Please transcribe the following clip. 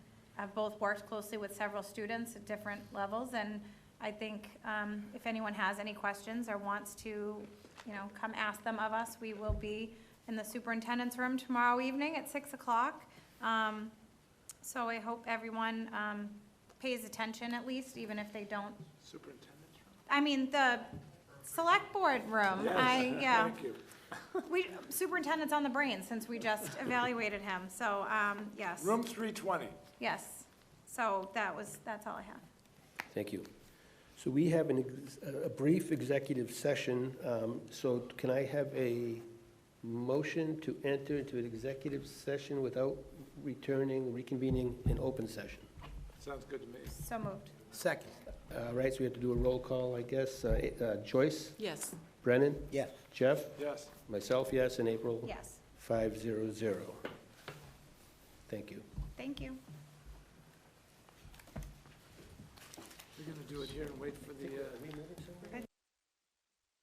I've both worked closely with several students at different levels, and I think um, if anyone has any questions or wants to, you know, come ask them of us, we will be in the superintendent's room tomorrow evening at 6 o'clock. Um, So I hope everyone um, pays attention at least, even if they don't, Superintendent's room? I mean, the select board room, I, yeah. Thank you. We, superintendent's on the brain since we just evaluated him, so, um, yes, Room 320. yes. So that was, that's all I have. Thank you. So we have an, ex- a brief executive session, um, so can I have a motion to enter into an executive session without returning, reconvening an open session? Sounds good to me. So moved. Second. All Uh, right, so we have to do a roll call, I guess. Uh, uh, Joyce, Yes. Brennan, Yes. Jeff, Yes. myself, yes, and April? Yes, Five zero zero. Thank you. thank you. We're going to do it here and wait for the, uh,